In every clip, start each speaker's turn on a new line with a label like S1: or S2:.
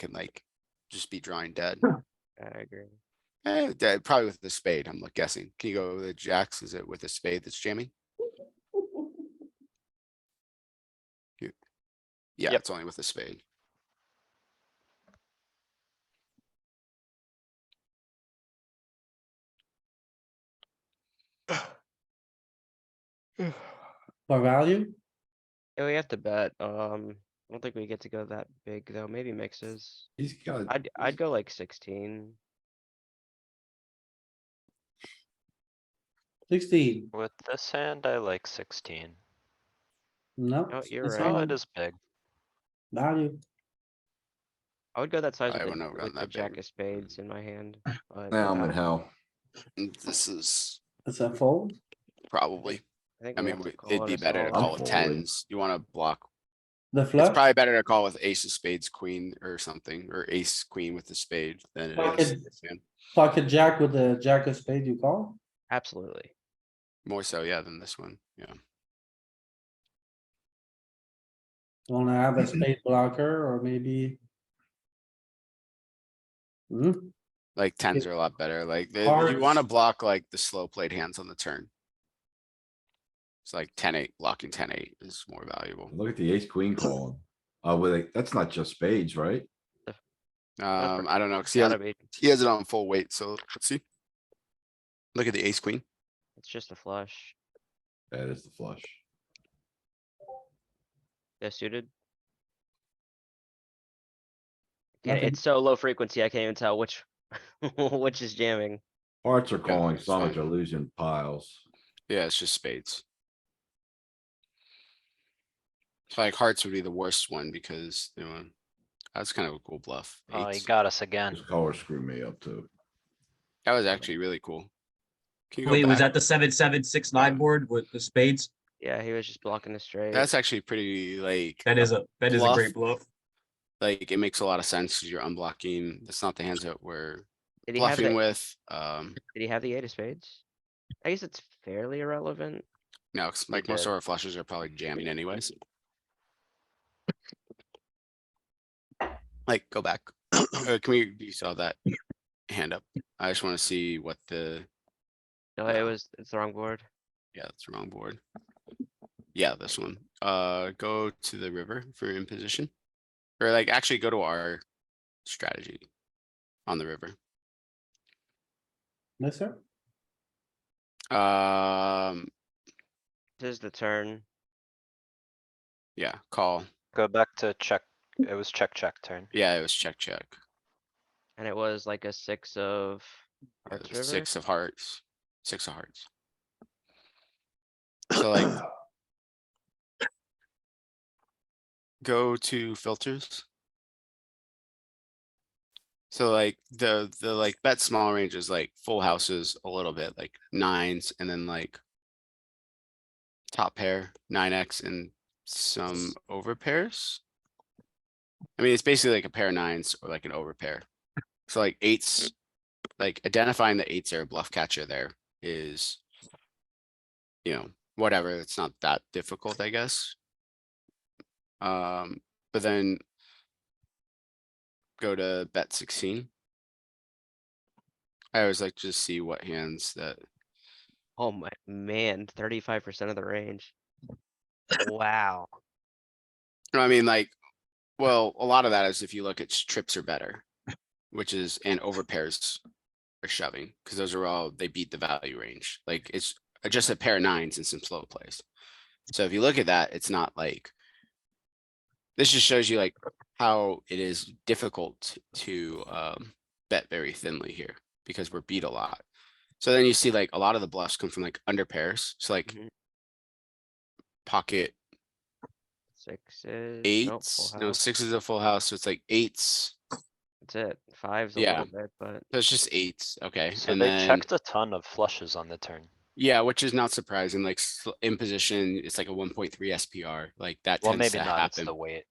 S1: can like just be drawing dead.
S2: I agree.
S1: Eh, dead, probably with the spade, I'm like guessing. Can you go with the jacks? Is it with a spade that's jamming? You- Yeah,
S2: Yep.
S1: it's only with a spade.
S3: For value,
S2: Yeah, we have to bet. Um, I don't think we get to go that big though. Maybe mixes.
S4: He's got,
S2: I'd, I'd go like sixteen
S3: sixteen,
S5: With this hand, I like sixteen.
S3: no.
S2: No, you're
S3: it's
S2: right.
S5: Oh,
S3: fine.
S5: it is big.
S3: Value,
S2: I would go that size
S1: I
S2: with
S1: would not
S2: the,
S1: run
S2: with the
S1: that big. Mm.
S2: jack of spades in my hand, but
S6: Now I'm
S2: uh,
S6: in hell.
S1: And This is
S3: it's a fold,
S1: probably,
S2: think
S1: I
S2: we
S1: mean,
S2: have to
S1: we-
S2: call
S1: it'd
S2: it
S1: be
S2: a
S1: better to
S2: solid.
S1: call with
S6: folding.
S1: tens. You wanna block.
S3: the
S1: It's
S3: flush,
S1: probably better to call with ace of spades, queen or something, or ace queen with the spade than
S3: Well,
S1: it is.
S3: it-
S1: this hand.
S3: pocket jack with the jack of spade you call.
S2: Absolutely.
S1: More so, yeah, than this one, yeah.
S3: You Wanna have a spade blocker or maybe? Hmm,
S1: Like tens are a lot better, like, the- you
S3: Hearts.
S1: wanna block like the slow played hands on the turn. It's like ten eight, blocking ten eight is more valuable.
S6: Look at the ace queen calling. Uh, with a, that's not just spades, right?
S1: Um, I don't know, cause
S2: It's
S1: he has,
S2: gotta be,
S1: he has it on full weight, so let's see. Look at the ace queen,
S2: it's just a flush.
S6: That is the flush.
S2: They're suited. Yeah,
S3: Nothing.
S2: it's so low frequency, I can't even tell which, which is jamming.
S6: Hearts are calling,
S1: it's
S6: some
S1: fine.
S6: are losing piles.
S1: yeah, it's just spades. So like hearts would be the worst one because, you know, that's kind of a cool bluff.
S5: Oh, he
S1: Eights.
S5: got us again.
S6: This color screwed me up too.
S1: That was actually really cool. Can you go
S7: Wait, was
S1: back?
S7: that the seven, seven, six, nine
S1: Yeah.
S7: board with the spades?
S2: Yeah, he was just blocking the straight.
S1: That's actually pretty like,
S7: That is a, that is a great bluff.
S1: like, it makes a lot of sense, 'cause you're unblocking, that's not the hands that we're
S2: Did he have
S1: bluffing
S2: the,
S1: with, um,
S2: did he have the eight of spades? I guess it's fairly irrelevant.
S1: no, 'cause, like most of our flushes are probably jamming anyways. Like, go back, Uh, can we, you saw that hand up, I just wanna see what the,
S2: No, it
S1: No.
S2: was, it's the wrong board.
S1: yeah, that's the wrong board. Yeah, this one, uh, go to the river if you're in position, or like actually go to our strategy on the river.
S3: yes, sir,
S1: Um,
S2: This is the turn.
S1: yeah, call.
S5: Go back to check. It was check, check turn.
S1: Yeah, it was check, check.
S2: And it was like a six of
S1: Yeah,
S2: hearts
S1: it was
S2: river.
S1: Uh, Six of hearts, six of hearts. So like. Go to filters. So like the, the like bet small range is like full houses a little bit, like nines and then like. Top pair, nine X and some over pairs. I mean, it's basically like a pair of nines or like an over pair. So like eights, like identifying the eights or bluff catcher there is. You know, whatever, it's not that difficult, I guess. Um, but then. Go to bet sixteen. I always like to just see what hands that,
S2: Oh my, man, thirty-five percent of the range. Wow.
S1: no, I mean, like, well, a lot of that is if you look at s- trips are better. Which is and over pairs are shoving, because those are all, they beat the value range. Like it's uh, just a pair of nines and some slow plays. So if you look at that, it's not like. This just shows you like how it is difficult to um bet very thinly here because we're beat a lot. So then you see like a lot of the bluffs come from like under pairs. So like.
S2: Mhm.
S1: Pocket
S2: Sixes. nope,
S1: eights,
S2: full
S1: no,
S2: house.
S1: six is a full house, so it's like eights,
S2: That's it. Fives a
S1: Yeah.
S2: little bit, but
S1: so it's just eights, okay,
S5: So
S1: and
S5: they
S1: then,
S5: checked a ton of flushes on the turn.
S1: yeah, which is not surprising, like, sl- in position, it's like a one point three SPR, like, that
S5: Well,
S1: tends
S5: maybe
S1: to
S5: not. It's
S1: happen.
S5: the weight.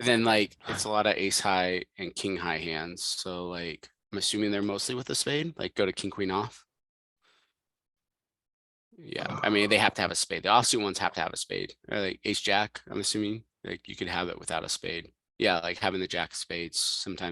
S1: Then, like, it's a lot of ace high and king high hands, so like, I'm assuming they're mostly with a spade, like, go to king queen off. Yeah, I mean, they have to have a spade, the offsuit ones have to have a spade, or like ace jack, I'm assuming, like, you could have it without a spade. Yeah, like having the jack of spades sometimes